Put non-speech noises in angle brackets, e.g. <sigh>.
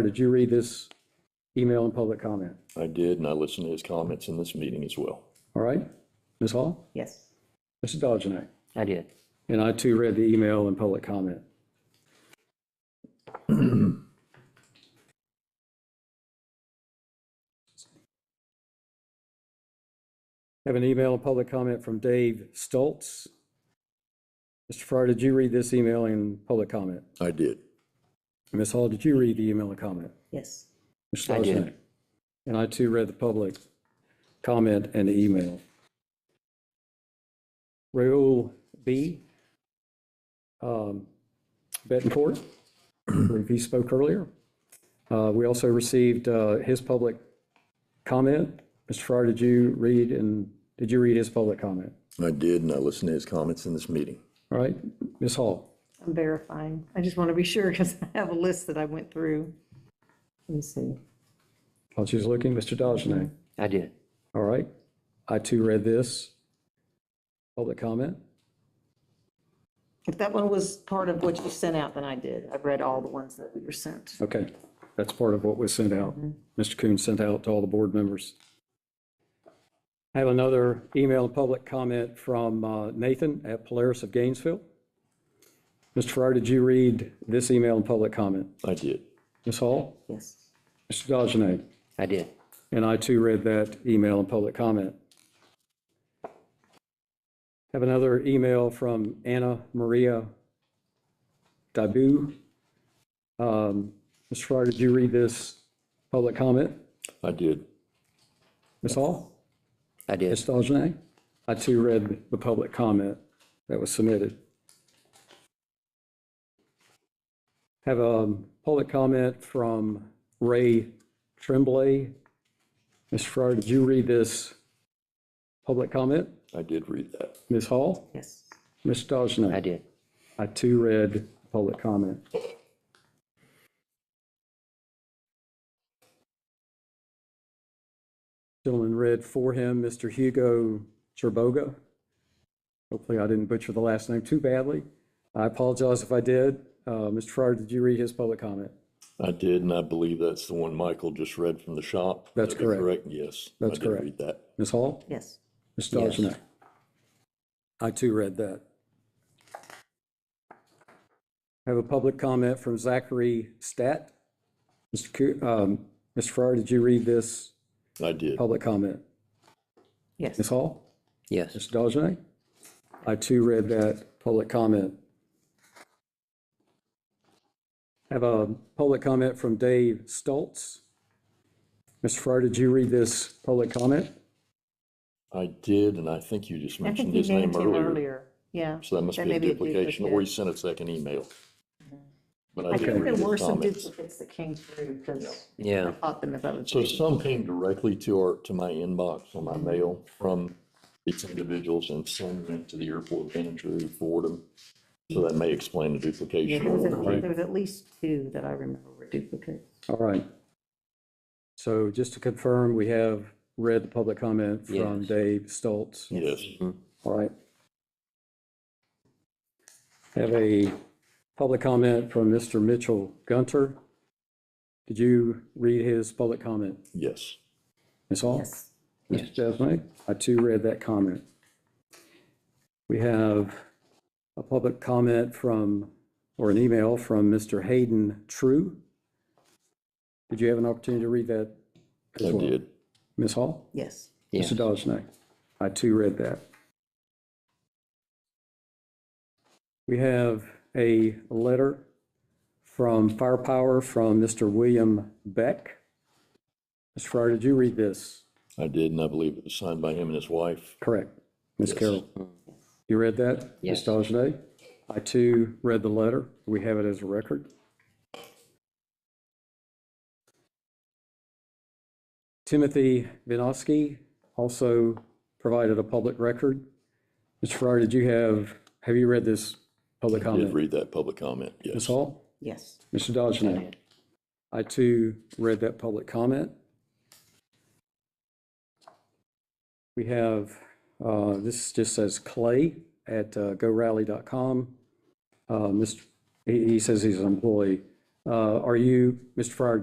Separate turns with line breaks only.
Or did you read this email and public comment?
I did, and I listened to his comments in this meeting as well.
All right? Ms. Hall?
Yes,
Mr. Dodgenite?
I did.
And I too read the email and public comment. <clears throat> Have an email and public comment from Dave Stoltz. Mr. Fryer, did you read this email and public comment?
I did.
Ms. Hall, did you read the email and comment?
yes,
Mr.
I did.
Dodgenite? And I too read the public comment and the email. Raoul B. um, Bettencourt, I believe he spoke earlier. Uh, We also received uh, his public comment. Mr. Fryer, did you read and, did you read his public comment?
I did, and I listened to his comments in this meeting.
All right, Ms. Hall?
I'm verifying. I just want to be sure because I have a list that I went through. Let me see.
While she's looking, Mr. Dodgenay.
I did.
All right, I too read this. Public comment?
If that one was part of what you sent out, then I did. I've read all the ones that were sent.
Okay, that's part of what was sent out. Mr. Coon sent out to all the board members. I have another email and public comment from uh, Nathan at Polaris of Gainesville. Mr. Farrar, did you read this email and public comment?
I did.
Ms. Hall?
Yes,
Mr. Dodgenay?
I did.
And I too read that email and public comment. Have another email from Anna Maria Dabu. Um, Ms. Fryer, did you read this public comment?
I did.
Ms. Hall?
I did.
Ms. Dodgenay? I too read the public comment that was submitted. Have a public comment from Ray Tremblay. Ms. Fryer, did you read this public comment?
I did read that.
Ms. Hall?
yes,
Ms.
I
Dodgenay?
did.
I too read public comment. Gentleman read for him, Mr. Hugo Cherboga. Hopefully I didn't butcher the last name too badly. I apologize if I did. Uh, Mr. Fryer, did you read his public comment?
I did, and I believe that's the one Michael just read from the shop.
That's
Is that
correct.
Yes.
That's correct.
I did read that.
Ms. Hall?
yes.
Ms.
Yes.
Dodgenay? I too read that. I have a public comment from Zachary Stat. Mr. Coo- um, Mr. Farrar, did you read this
I did.
public comment?
Yes,
Ms. Hall?
Yes.
Mr. Dodgenay? I too read that public comment. I Have a public comment from Dave Stoltz. Mr. Farrar, did you read this public comment?
I did, and I think you just
I think
mentioned
you
his
gave
name
it to him
earlier.
earlier. Yeah.
So that must
That
be
may
a
be a
duplication, or
duplicate.
he sent a second email. But I
Mm-hmm.
did
I think there
read
were
his
some
comments.
duplicates that came through because I
Yeah.
thought them about
So
it.
some came directly to our, to my inbox on my mail from these individuals and sent them to the airport manager who forwarded them. So that may explain the
Yeah, There was,
duplication.
at- there was at least two that I remember were duplicates.
All right. So just to confirm, we have read the public comment from
Yes.
Dave Stoltz.
Yes,
All right. Have a public comment from Mr. Mitchell Gunter. Did you read his public comment?
yes,
Ms.
Oh.
Hall?
Yes,
Mr. Desmond, I too read that comment. We have a public comment from, or an email from Mr. Hayden True. Did you have an opportunity to read that? as
I
well?
did.
Ms. Hall?
yes,
Yes.
Mr. Dodgenay? I too read that. We have a letter from Firepower from Mr. William Beck. Mr. Fryer, did you read this?
I did, and I believe it was signed by him and his wife.
Correct. Ms.
Yes. Mm.
Carroll, you read that?
Yes.
Ms. Dodgenay? I too read the letter. We have it as a record. Timothy Vinosky also provided a public record. Mr. Farrar, did you have, have you read this public
I Did
comment?
read that public comment,
Ms.
yes.
Hall?
yes,
Mr. Dodgenay? I too read that public comment. We have, uh, this just says Clay at uh, gorally.com. Uh, Mr., he he says he's an employee. Uh, Are you, Mr. Fryer,